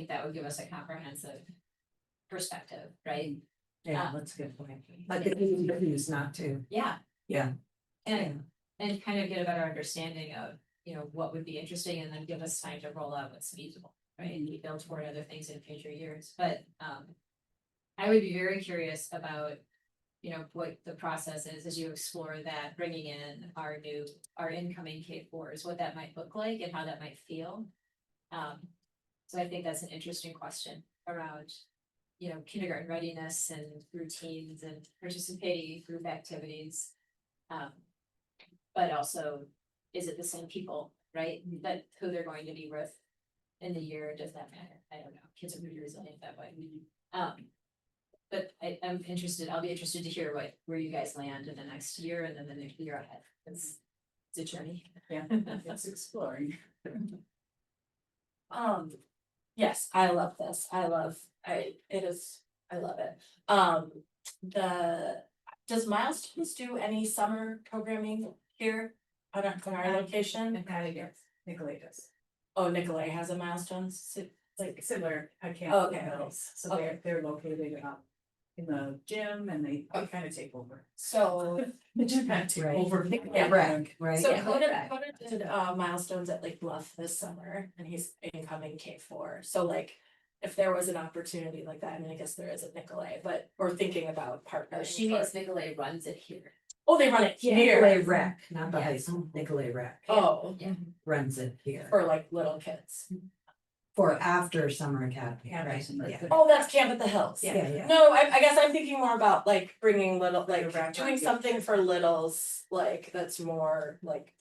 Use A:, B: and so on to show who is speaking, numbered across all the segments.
A: think that would give us a comprehensive perspective,
B: Mm-hmm.
A: right?
C: Yeah,
A: Yeah.
C: that's a good point. Uh, But the easy to use not to,
A: Yeah.
C: Yeah.
A: And and kind of get a better understanding of, you know, what would be interesting and then give us time to roll out what's feasible, right? And we build toward other things in future years, but um. I would be very curious about, you know, what the process is as you explore that, bringing in our new, our incoming K fours, what that might look like and how that might feel. Um, so I think that's an interesting question around, you know, kindergarten readiness and routines and participating in group activities. Um, but also, is it the same people, right, that who they're going to be with in the year, does that matter? I don't know, kids are pretty resilient that way. Um, but I, I'm interested, I'll be interested to hear what, where you guys land in the next year and then the next year ahead, it's, it's a journey.
D: Yeah, it's exploring. Um, yes, I love this. I love, I, it is, I love it. Um, the, does Milestones do any summer programming here? On our, on our
B: Um,
D: location?
B: Nicolaitis, Nicolaitis,
D: Oh, Nicolay has a Milestones. si-
B: like similar, I can't.
D: Okay.
B: So they're, they're located um in the gym and they they kind of take over.
D: So,
B: The gym kind of take
C: Right.
B: over.
D: Yeah.
C: Right, right?
D: so
B: yeah.
D: Coda, Coda did uh Milestones at Lake Bluff this summer and he's incoming K four. So like, if there was an opportunity like that, I mean, I guess there is at Nicolay, but we're thinking about partnering.
A: She
D: for-
A: means Nicolay runs it here.
D: Oh, they run it
C: Nicolay
D: here.
C: Rec, not the high
A: Yes.
C: school, Nicolay Rec
D: Oh,
C: runs it here
D: for like little kids.
C: for after summer academy,
B: After
C: right?
B: summer
C: Yeah.
B: academy.
D: Oh, that's Camp at the Hills.
C: Yeah, yeah,
D: No, I, I guess I'm thinking more about like bringing little, like
B: Like a
D: doing
B: wrap-up.
D: something for littles, like that's more like.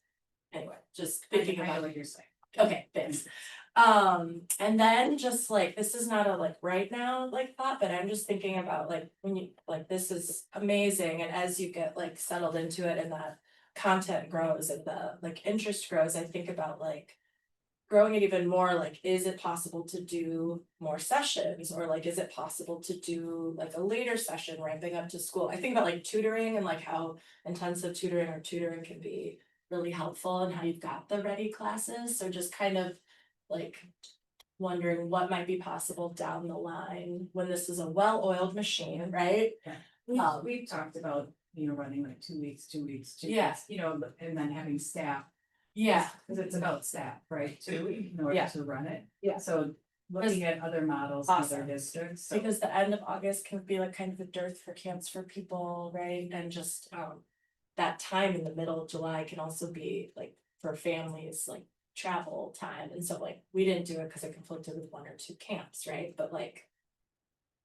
D: Anyway, just thinking
B: I
D: about,
B: know what you're saying.
D: okay, thanks. Um, and then just like, this is not a like right now like thought, but I'm just thinking about like when you, like this is amazing. And as you get like settled into it and that content grows and the like interest grows, I think about like. Growing it even more, like, is it possible to do more sessions or like, is it possible to do like a later session ramping up to school? I think about like tutoring and like how intensive tutoring or tutoring can be. Really helpful and how you've got the ready classes, so just kind of like. Wondering what might be possible down the line when this is a well-oiled machine, right?
B: We've,
D: Um,
B: Uh, we've talked about, you know, running like two weeks, two weeks, two
D: Yeah.
B: weeks, you know, and then having staff.
D: Yeah,
B: Cause it's about staff, right, too, in order
D: Yeah.
B: to run it.
D: Yeah.
B: So looking at other models, in other
D: Awesome.
B: districts, so.
D: because the end of August can be like kind of a dearth for camps for people, right? And just um that time in the middle of July can also be like for families, like travel time. And so like we didn't do it because it conflicted with one or two camps, right? But like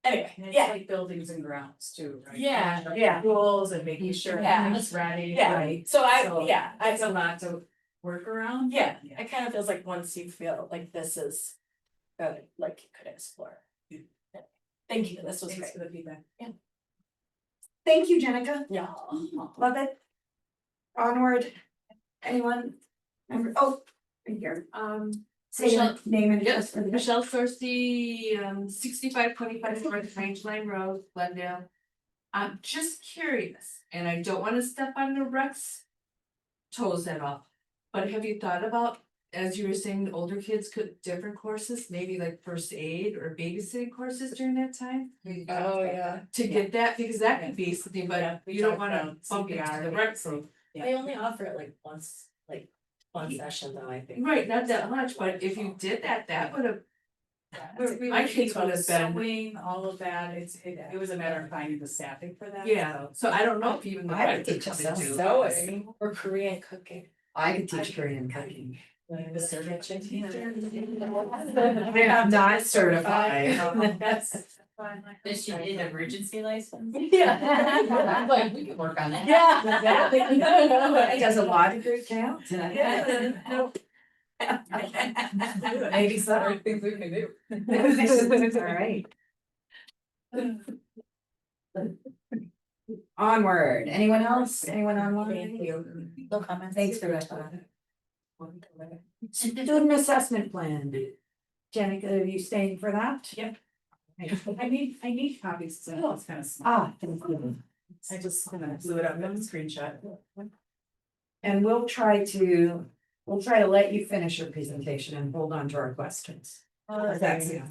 D: anyway,
B: And it's
D: yeah,
B: like buildings and grounds too, right?
D: Yeah,
B: Constructing
D: yeah.
B: Rules and making sure
D: Yeah.
B: everything's ready.
D: Yeah.
B: right?
D: so I,
B: So
D: yeah, I
B: It's a lot to work around.
D: yeah, it kind of feels like once you feel like this is uh like you could explore.
B: Yeah.
D: Thank you, this was
B: Thanks
D: great.
B: for the feedback.
E: Thank you, Jenica.
D: Yeah.
E: Oh, Love it. Onward. Anyone? Member, oh, right here. Um, say your
F: Michelle.
E: name and address
F: Yes,
E: for the
F: Michelle Sorcy, um, sixty-five twenty-five North Range Line Road, Glendale. I'm just curious, and I don't wanna step on the Rex toes at all, but have you thought about, as you were saying, the older kids could, different courses, maybe like first aid or babysitting courses during that time?
D: Oh, yeah.
F: To get that, because that could be something,
B: Yeah,
F: but
B: we
F: you don't
B: talked
F: wanna
B: about
F: bump into
B: CPR.
F: the Rex. room.
B: Yeah.
D: They only offer it like once, like one session though, I think.
F: Right, not that much, but if you did that, that would have, we- we My kids would have been-
B: Sewing, all of that, it's, it, it was a matter of finding the staffing for that.
F: yeah,
B: so.
F: so I don't know if even the
C: I would
F: Rex could
C: teach
F: come
C: myself
F: into.
D: Sewing or Korean cooking.
C: I could teach Korean cooking.
D: The servant
C: I am not certified.
B: That's fine.
A: Does she need an emergency license?
D: Yeah.
A: Like, we could work on that.
D: Yeah.
C: It does a law degree count? Maybe so.
B: Things we can do.
C: All right. Onward, anyone else, anyone online?
D: Thank you.
C: No comments. Thanks for that.
E: Student assessment plan. Jenica, are you staying for that?
B: I need, I need copies, so Oh, it's kind of small.
C: Ah, thank you.
B: I just kind of blew it up, on the screenshot.
C: And we'll try
B: Oh,
C: to, we'll try to let you finish your presentation and hold on to our questions. That's-